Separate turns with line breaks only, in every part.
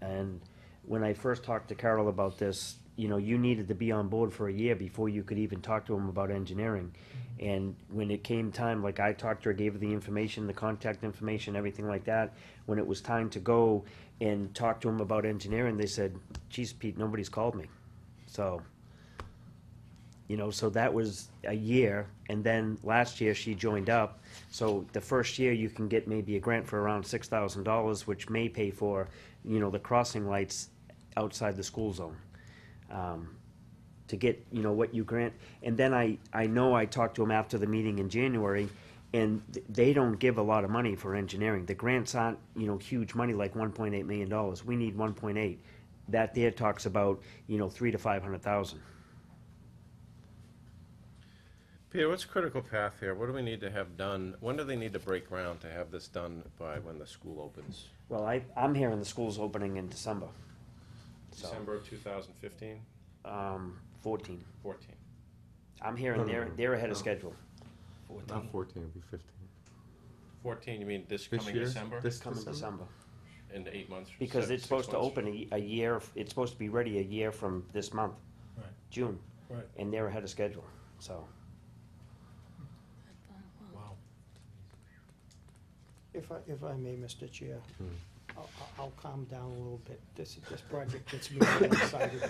And when I first talked to Carol about this, you know, you needed to be on board for a year before you could even talk to him about engineering. And when it came time, like I talked to her, gave her the information, the contact information, everything like that. When it was time to go and talk to him about engineering, they said, geez, Pete, nobody's called me. So, you know, so that was a year. And then last year she joined up. So the first year you can get maybe a grant for around six thousand dollars, which may pay for, you know, the crossing lights outside the school zone. Um, to get, you know, what you grant. And then I, I know I talked to them after the meeting in January and th- they don't give a lot of money for engineering. The grants aren't, you know, huge money like one point eight million dollars. We need one point eight. That there talks about, you know, three to five hundred thousand.
Peter, what's critical path here? What do we need to have done? When do they need to break ground to have this done by when the school opens?
Well, I, I'm hearing the school's opening in December. So,
December of 2015,
um, fourteen.
14.
I'm hearing
No, no,
they're,
no,
they're ahead of
no.
schedule.
Not fourteen, it'll be fifteen.
14, you mean this
This
coming
year?
December?
This
Coming December.
In eight months?
Because
se-
it's
six
supposed to
months?
open a, a year, it's supposed to be ready a year from this month.
Right.
June.
Right.
And they're ahead of schedule, so.
Wow.
If I, if I may, Mr. Chair, I'll, I'll- I'll calm down a little bit. This, this project gets me really excited.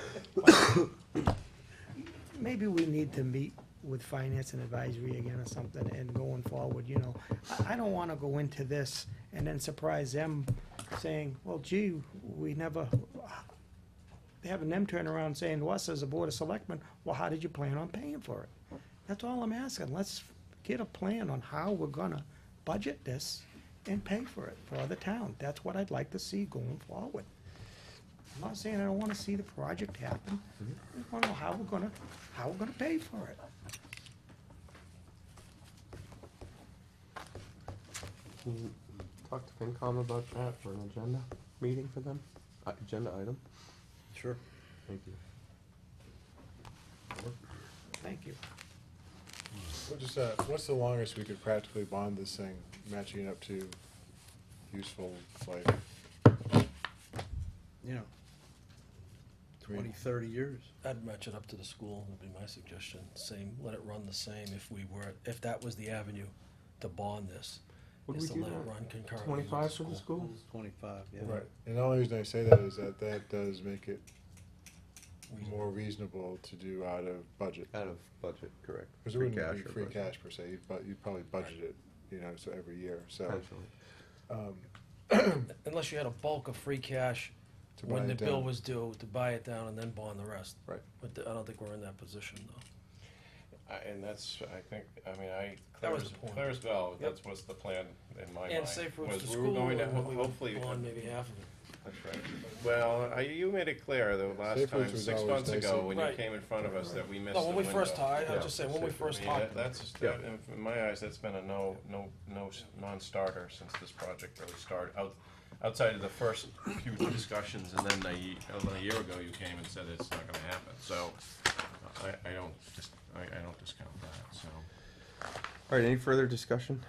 Maybe we need to meet with finance and advisory again or something and going forward, you know. I, I don't wanna go into this and then surprise them saying, well, gee, we never, having them turn around saying to us as a board of selectmen, well, how did you plan on paying for it? That's all I'm asking. Let's get a plan on how we're gonna budget this and pay for it for the town. That's what I'd like to see going forward. I'm not saying I don't wanna see the project happen. I just wanna know how we're gonna, how we're gonna pay for it.
Can you talk to FinCom about that for an agenda meeting for them? Uh, Agenda item?
Sure.
Thank you.
Thank you.
What is, uh, what's the longest we could practically bond this thing, matching it up to useful life?
you know,
Three.
20, 30 years.
I'd match it up to the school, would be my suggestion, same, let it run the same if we were, if that was the avenue to bond this.
Would
is
we
to
do
let it
that?
run concurrently with
Twenty-five for the school?
25, yeah.
Right, and the only reason I say that is that that does make it
We-
more reasonable to do out of budget.
Out of budget, correct.
Because it wouldn't be
Uh, or
free
budget,
cash per se, but you'd probably budget it, you know, so every year, so.
potentially.
Unless you had a bulk of free cash
to buy
when the
it
bill
down.
was due, to buy it down and then bond the rest.
Right.
But I don't think we're in that position, though.
I- And that's, I think, I mean, I,
That
clear
was
as,
the point.
clear as bell, that's what's the plan in my mind.
And safe
was
routes to
we were
school,
going to
and
ho-
we would
Hopefully,
bond maybe half of it.
That's right. Well, I- you made it clear the last
Safe routes
time,
was
six
always
months ago,
dicey.
when you
Right.
came in front of us, that we missed the
No,
window.
when we first talked,
Yeah.
I'll just say, when we
Safe
first
I mean, that-
talked,
That's, that, in my eyes, that's been a no, no, no, s- non-starter since this project really started. Out- Outside of the first few discussions, and then a, ye- a year ago, you came and said it's not gonna happen, so I, I don't, dis- I, I don't discount that, so.
All right, any further discussion?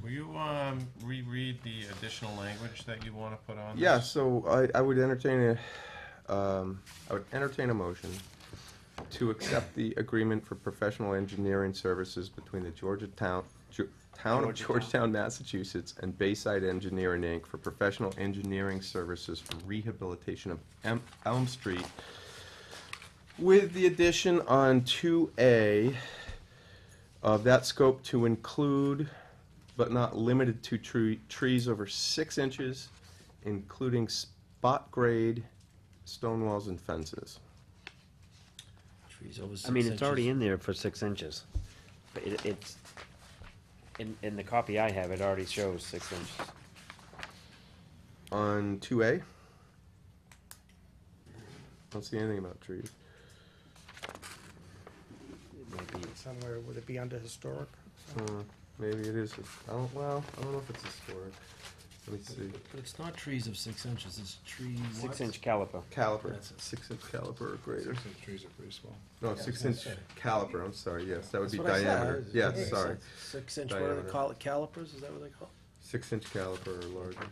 Will you, um, reread the additional language that you wanna put on this?
Yeah, so I, I would entertain a, um, I would entertain a motion to accept the agreement for professional engineering services between the Georgia Town, Ge- Town of
Georgetown.
Georgetown, Massachusetts, and Bayside Engineering, Inc. for professional engineering services for rehabilitation of Em- Elm Street with the addition on two A of that scope to include, but not limited to tree, trees over six inches, including spot grade, stone walls and fences.
Trees over six
I mean, it's
inches.
already in there for six inches. But it, it's, in, in the copy I have, it already shows six inches.
On two A? Don't see anything about trees.
It might be-
Somewhere, would it be under historic?
Uh, Maybe it is, I don't, well, I don't know if it's historic. Let me see.
But it's not trees of six inches, it's trees.
Six inch caliper.
Caliper,
That's it.
six inch caliper or greater.
Six inch trees are pretty small.
No, six inch caliper, I'm sorry, yes, that would be
That's what I said.
diameter.
It's-
Yes,
it's
sorry.
Six inch, what do they
Diameter.
call it, calipers, is that what they call it?
Six inch caliper or larger.